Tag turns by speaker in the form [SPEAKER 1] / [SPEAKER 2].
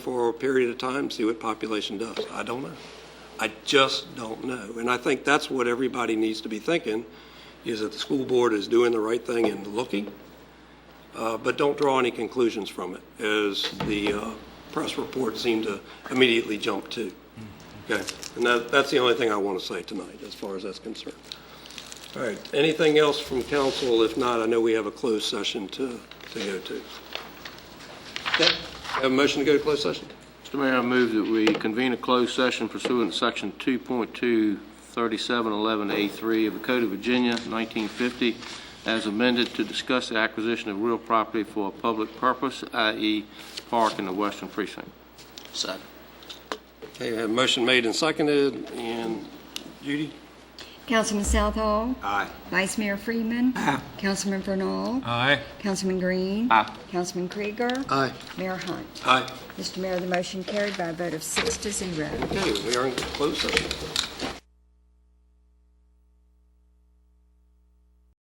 [SPEAKER 1] for a period of time, see what population does. I don't know. I just don't know. And I think that's what everybody needs to be thinking, is that the school board is doing the right thing and looking, uh, but don't draw any conclusions from it, as the uh, press report seemed to immediately jump to. Okay, and that, that's the only thing I want to say tonight, as far as that's concerned. All right, anything else from council? If not, I know we have a closed session to, to go to. Okay, have a motion to go to closed session?
[SPEAKER 2] Mr. Mayor, I move that we convene a closed session pursuant to Section 2.23711A3 of the Code of Virginia, 1950, as amended to discuss the acquisition of real property for a public purpose, i.e. park in the western precinct.
[SPEAKER 3] Second.
[SPEAKER 1] Okay, we have a motion made and seconded, and Judy?
[SPEAKER 4] Councilman Southall.
[SPEAKER 3] Aye.
[SPEAKER 4] Vice Mayor Freeman. Councilman Bernal.
[SPEAKER 5] Aye.
[SPEAKER 4] Councilman Green.
[SPEAKER 3] Aye.
[SPEAKER 4] Councilman Krieger.
[SPEAKER 3] Aye.
[SPEAKER 4] Mayor Hunt.
[SPEAKER 1] Aye.
[SPEAKER 4] Mr. Mayor, the motion carried by a vote of six to zero.
[SPEAKER 1] Okay, we are in closed session.